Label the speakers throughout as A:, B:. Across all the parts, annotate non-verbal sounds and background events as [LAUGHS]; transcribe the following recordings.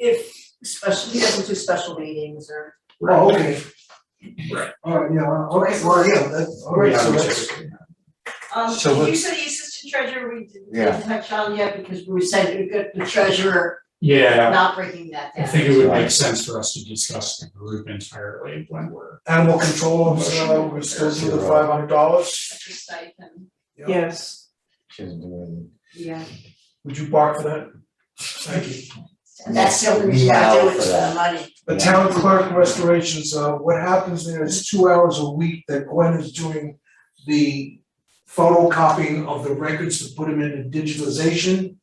A: if special, he doesn't do special meetings or,
B: Oh, okay.
C: Right.
B: Alright, yeah, uh, okay, well, yeah, that's,
C: Oh,
B: alright, so that's,
D: Um,
C: So
D: you
C: let's-
D: said the assistant treasurer we didn't
E: Yeah.
D: touch on yet because we said we got the treasurer
C: Yeah,
D: not breaking that down.
C: I think it would make sense for us to discuss the group entirely when we're.
B: animal control, so we're still doing the five hundred dollars.
D: That's a stipend.
A: yes,
E: She doesn't do anything.
A: yeah.
B: Would you bark for that? Thank you.
D: And that's the only reason I do
E: Meow
D: it
E: for
D: is for the
E: that.
D: money.
B: The town clerk restorations, uh, what happens there is two hours a week that Gwen is doing the photocopying of the records to put them into digitalization.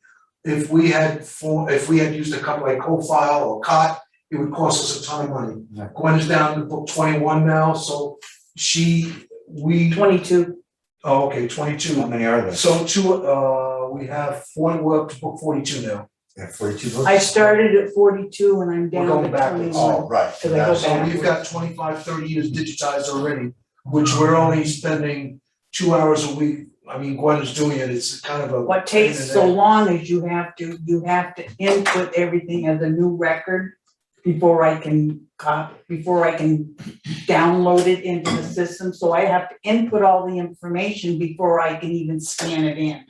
B: If we had for, if we had used a company like CoFile or Cot, it would cost us a ton of money.
E: Yeah.
B: Gwen is down to book twenty-one now, so she, we,
A: Twenty-two,
B: oh, okay,
E: How
B: twenty-two.
E: many are there?
B: So two, uh, we have four, we're up to book forty-two now.
E: There are Forty-two books?
A: I started at forty-two and I'm
B: We're
A: down
B: going
A: to
B: backwards.
A: twenty-one.
E: Oh, right.
A: Cause I go
E: that's-
B: So we've got 25, 30 years digitized already, which we're only spending two hours a week. I mean, Gwen is doing it, it's kind of a.
A: What takes so long is you have to, you have to input everything as a new record before I can cop, before I can download it into the system, so I have to input all the information before I can even scan it in.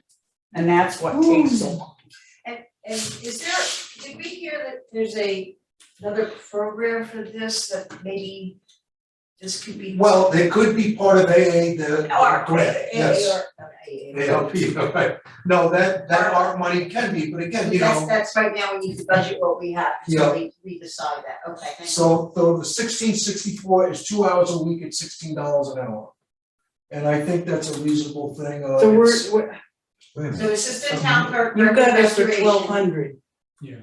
A: And that's what takes so long.
D: And is there, did we hear that there's a, another program for this that maybe this could be?
B: Well, they could be part of AA, the
D: Or,
B: grant, yes.
D: or- not AA.
B: ARP, [LAUGHS] right. No, that, that art money can be, but again, you
D: That's,
B: know,
D: that's right now, we need to budget what we have,
B: Yeah.
D: so we, we decide that, okay, thank you.
B: so, so the sixteen sixty-four is two hours a week at sixteen dollars an hour. And I think that's a reasonable thing, uh,
A: So
B: it's-
A: we're, we're,
E: Wait a minute.
D: So assistant town clerk,
A: you've got us for
D: restoration.
A: twelve hundred.
C: Yeah.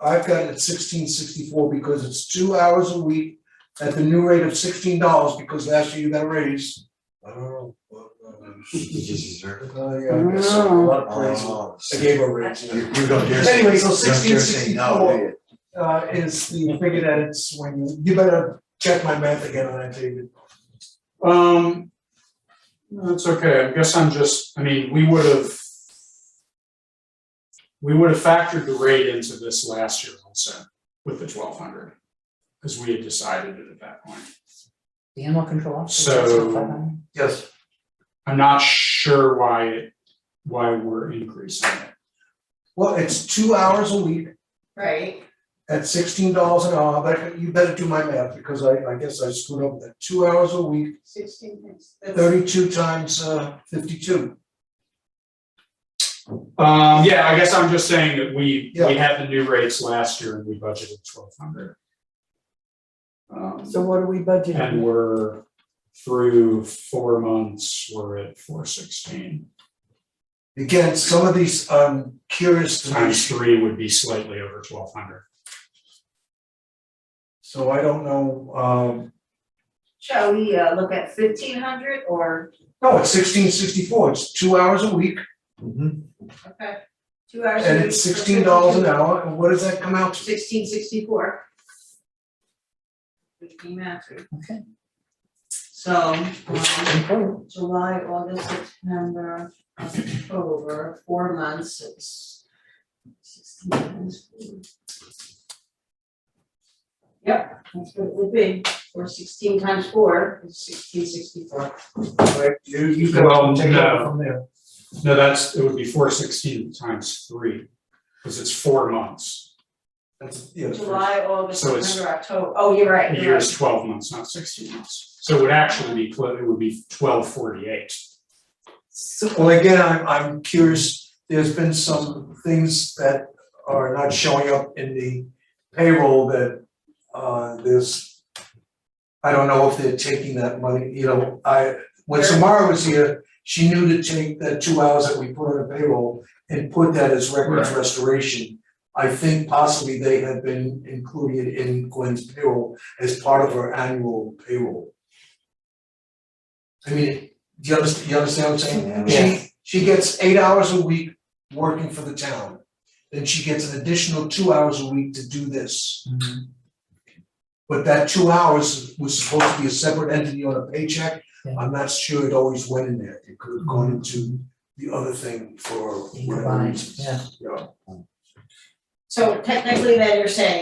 B: I've got it sixteen sixty-four because it's two hours a week at the new rate of sixteen dollars because last year you got a raise. I don't know. what,
E: You [LAUGHS] just deserve it.
B: uh, uh, yeah, I guess so. a lot of praise.
E: Oh,
B: I
E: so
B: gave a raise.
E: You
B: yeah.
E: you don't dare. say-
B: Anyway, so
E: you don't dare say no, do
B: 1664 uh, is the figure that it's when you, you better check my math again on that, David.
C: Um, no, it's okay, I guess I'm just, I mean, we would have. We would have factored the rate into this last year also with the twelve hundred. Cause we had decided it at that point.
A: The animal control officer.
C: So-
B: Yes.
C: I'm not sure why it, why we're increasing it.
B: Well, it's two hours a week
D: Right,
B: at sixteen dollars an hour, but you better do my math because I, I guess I screwed up that, two hours a week
D: sixteen, that's- that's-
B: thirty-two times uh fifty-two.
C: Um, yeah, I guess I'm just saying that we,
B: Yeah.
C: we had the new rates last year and we budgeted twelve hundred.
A: So
C: Um,
A: what are we budgeting?
C: and we're through four months, we're at four sixteen.
B: Again, some of these, um, curious to me,
C: Times three would be slightly over twelve hundred.
B: so I don't know, um,
D: Shall we uh look at fifteen hundred or,
B: no, it's sixteen sixty-four, it's two hours a week,
E: Mhm.
D: okay, two hours a
B: and
D: week
B: it's
D: for
B: sixteen dollars an
D: 52.
B: hour, and what does that come out to?
D: Sixteen sixty-four. Which came after.
A: Okay.
D: So, um, July, August, September, October, four months, it's sixteen times four. Yep, that's what it would be, or sixteen times four, is sixteen sixty-four.
B: Like, you, you can
C: Well,
B: take it
C: no.
B: from there.
C: No, that's, it would be four sixteen times three, because it's four months.
B: That's, yeah, it's-
D: July, August,
C: So it's-
D: September, October, oh, you're right,
C: A
D: you're
C: year
D: right.
C: is twelve months, not sixteen months. So it would actually be, clo- it would be twelve forty-eight.
A: So
B: Well, again, I'm, I'm curious, there's been some things that are not showing up in the payroll that, uh, there's, I don't know if they're taking that money, you know, I, when Samara was here, she knew to take that two hours that we put on the payroll and put that as records
C: Right.
B: restoration. I think possibly they had been included in Gwen's payroll as part of her annual payroll. I mean, do you understand, you understand what I'm saying? She, she gets eight hours a week working for the town. Then she gets an additional two hours a week to do this.
A: Mm-hmm.
B: But that two hours was supposed to be a separate entity on a paycheck.
A: Yeah. Mm-hmm.
B: I'm not sure it always went in there. It could have gone into the other thing for whatever reasons.
A: yeah.
B: Yeah.
D: So technically, then you're saying